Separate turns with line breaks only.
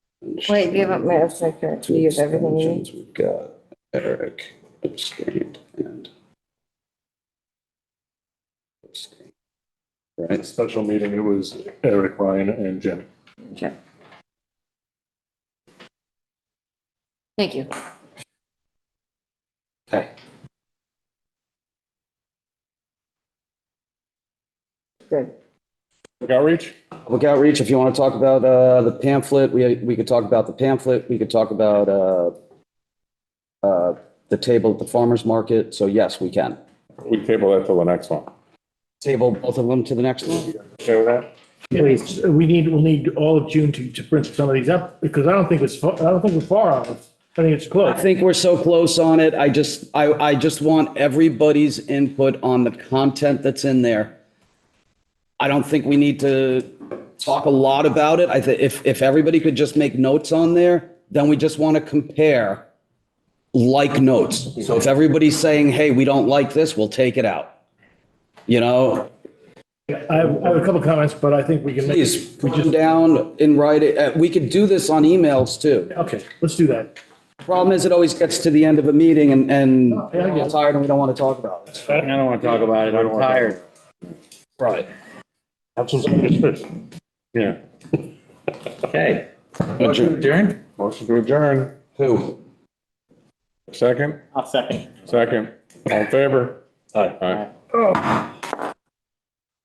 abstentions.
Wait, you haven't made a second to use everything you need.
Abstentions, We've got Eric abstained and. abstained.
The
Right,
special meeting, it was Eric, Ryan and Jim.
Okay. Thank you.
okay.
Good.
Public Outreach?
Public outreach, if you want to talk about uh, the pamphlet, we, we could talk about the pamphlet, we could talk about uh, uh, the table at the farmer's market, so yes, we can.
We table that till the next one.
Table both of them to the next one?
Okay with that?
Yeah, it's- we need, we'll need all of June to, to print some of these up, because I don't think it's, fa- I don't think we're far off. I think it's
I
close.
think we're so close on it, I just, I, I just want everybody's input on the content that's in there. I don't think we need to talk a lot about it, I think if, if everybody could just make notes on there, then we just want to compare like notes. So if everybody's saying, hey, we don't like this, we'll take it out. You know,
I have, I have a couple comments, but I think we can. make-
please, put them down and write it, Uh, we could do this on emails too.
Okay, let's do that.
Problem is, it always gets to the end of a meeting and, and
yeah, I get
we're
it.
tired and we don't want to talk about it.
I don't want to talk about it. I'm tired.
Right.
That's what's understood. Yeah.
Okay. Adjourn?
Motion to adjourn.
Who?
Second?
I'll second.
Second. All in favor? Aye.